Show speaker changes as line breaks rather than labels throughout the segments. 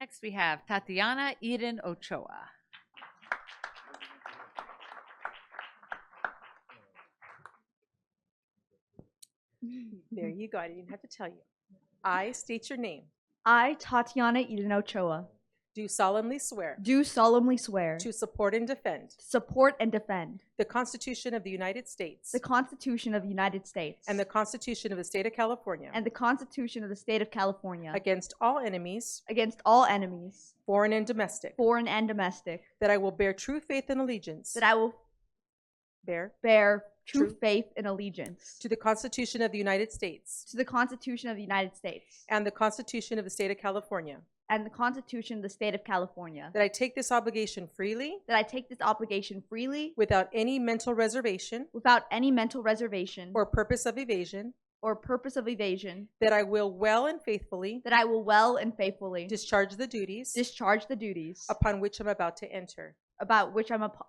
Next, we have Tatiana Eden Ochoa.
There you go. I didn't have to tell you. I state your name.
I, Tatiana Eden Ochoa,
Do solemnly swear
do solemnly swear
to support and defend
support and defend
the Constitution of the United States
the Constitution of the United States
and the Constitution of the State of California
and the Constitution of the State of California
against all enemies,
against all enemies,
foreign and domestic,
foreign and domestic,
that I will bear true faith and allegiance
that I will
bear
bear true
True.
faith and allegiance
to the Constitution of the United States
to the Constitution of the United States
and the Constitution of the State of California,
and the Constitution of the State of California,
that I take this obligation freely
that I take this obligation freely
without any mental reservation
without any mental reservation
or purpose of evasion,
or purpose of evasion,
that I will well and faithfully
that I will well and faithfully
discharge the duties
discharge the duties
upon which I'm about to enter.
about which I'm ap-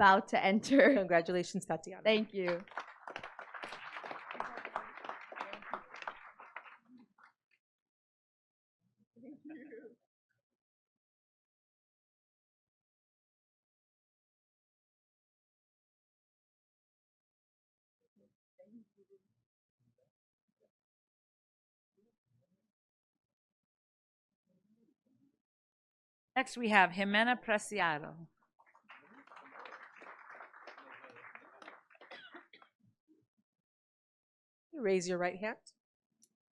about to enter.
Congratulations, Tatiana.
Thank you.
Next, we have Jimena Preciado.
Raise your right hand.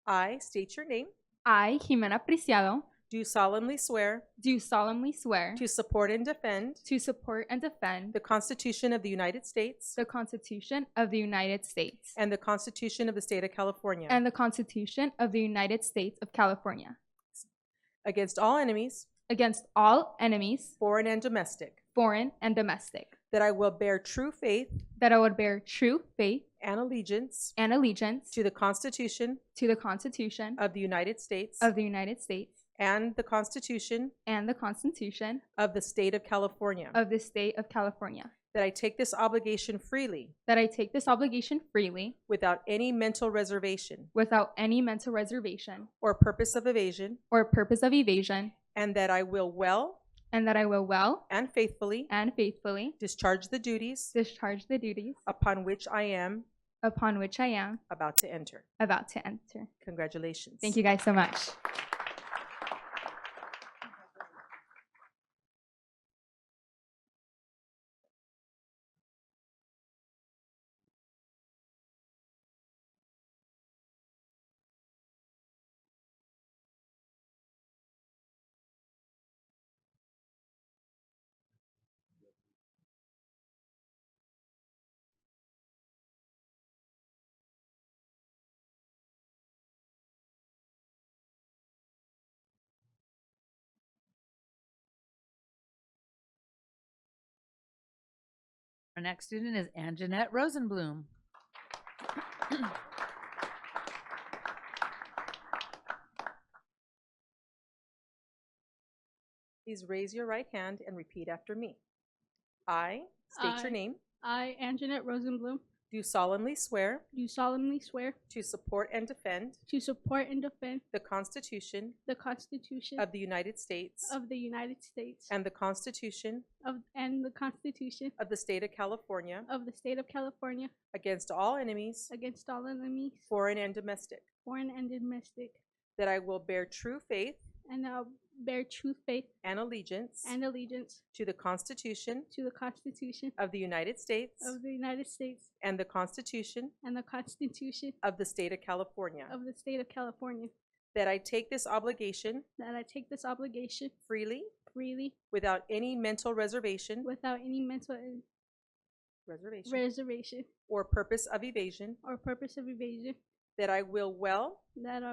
I state your name.
I, Jimena Preciado,
Do solemnly swear
do solemnly swear
to support and defend
to support and defend
the Constitution of the United States
the Constitution of the United States
and the Constitution of the State of California
and the Constitution of the United States of California
against all enemies,
against all enemies,
foreign and domestic,
foreign and domestic,
that I will bear true faith
that I would bear true faith
and allegiance
and allegiance
to the Constitution
to the Constitution
of the United States
of the United States
and the Constitution
and the Constitution
of the State of California,
of the State of California,
that I take this obligation freely
that I take this obligation freely
without any mental reservation
without any mental reservation
or purpose of evasion,
or purpose of evasion,
and that I will well
and that I will well
and faithfully
and faithfully
discharge the duties
discharge the duties
upon which I am
upon which I am
about to enter.
about to enter.
Congratulations.
Thank you guys so much.
Our next student is Anjanette Rosenblum.
Please raise your right hand and repeat after me. I state your
I-
name.
I, Anjanette Rosenblum,
Do solemnly swear
do solemnly swear
to support and defend
to support and defend
the Constitution
the Constitution
of the United States
of the United States
and the Constitution
of, and the Constitution
of the State of California
of the State of California
against all enemies,
against all enemies,
foreign and domestic,
foreign and domestic,
that I will bear true faith
and I'll bear true faith
and allegiance
and allegiance
to the Constitution
to the Constitution
of the United States
of the United States
and the Constitution
and the Constitution
of the State of California,
of the State of California,
that I take this obligation
that I take this obligation
freely
freely
without any mental reservation,
without any mental
reservation
reservation
or purpose of evasion,
or purpose of evasion,
that I will well
that I